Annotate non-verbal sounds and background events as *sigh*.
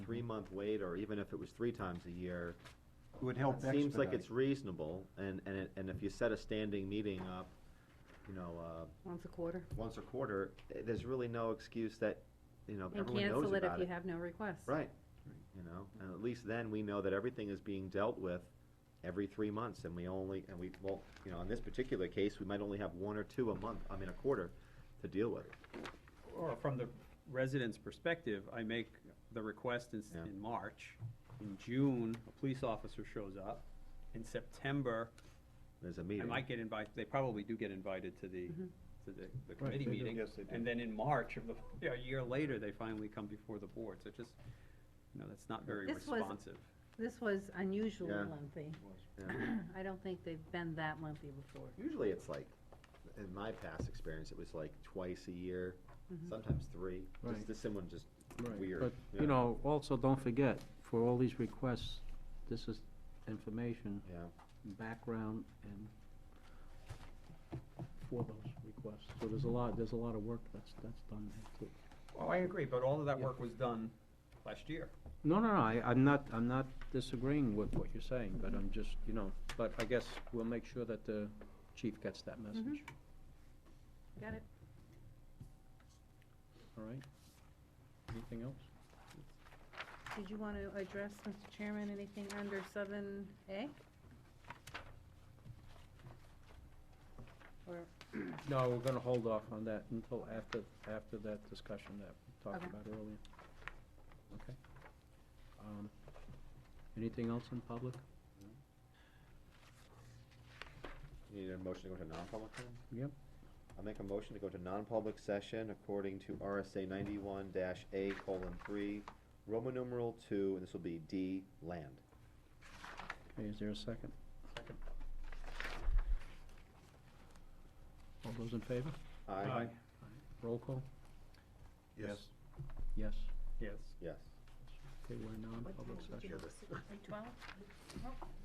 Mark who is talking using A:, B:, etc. A: three-month wait, or even if it was three times a year,
B: It would help expedite.
A: seems like it's reasonable, and, and, it- and if you set a standing meeting up, you know, uh,
C: once a quarter.
A: once a quarter, eh, there's really no excuse that, you know,
C: And
A: everyone knows
C: cancel it if
A: about
C: you
A: it.
C: have no requests.
A: Right, you know, and at least then we know that everything is being dealt with every three months, and we only, and we, well, you know, in this particular case, we might only have one or two a month, I mean, a quarter to deal with.
D: Or from the resident's perspective, I make the request in,
A: Yeah.
D: in March. In June, a police officer shows up. In September,
A: There's a
D: I
A: meeting.
D: might get invited, they probably do get invited to the,
C: Mhm.
D: to the, the committee
B: they do.
D: meeting.
B: Yes, they do.
D: And then in March of the, *laughs* yeah, a year later, they finally come before the board, so just, you know, that's not very
C: This was-
D: responsive.
C: This was unusually
A: Yeah.
C: lengthy.
A: Yeah.
C: I don't think they've been that lengthy before.
A: Usually it's like, in my past experience, it was like twice a year, sometimes three, just
E: Right.
A: this someone just
E: Right,
A: weird.
E: But,
A: Yeah.
E: you know, also, don't forget, for all these requests, this is information,
A: Yeah,
E: background, and for those requests. So there's a lot, there's a lot of work that's, that's done there, too.
D: Oh, I agree, but all of that
E: Yeah.
D: work was done last year.
E: No, no, no, I, I'm not, I'm not disagreeing with what you're saying, but I'm just, you know, but I guess we'll make sure that the chief gets that message,
A: Mm-hmm.
C: Got it?
E: all right? Anything else?
C: Did you want to address, Mr. Chairman, anything under seven A? Or,
E: No, we're gonna hold off on that until after, after that discussion that we talked
C: Okay.
E: about earlier. Okay? Um, Anything else in public?
A: you need a motion to go to non-public then?
E: Yep.
A: I'll make a motion to go to non-public session according to RSA ninety-one dash A colon three, Roman numeral two, and this will be D, land.
E: Okay, is there a second?
D: Second.
E: All those in favor?
A: Aye?
E: Roll call?
B: Yes.
E: Yes.
D: Yes.
A: Yes.
E: Okay, we're in non-public session.
C: twelve?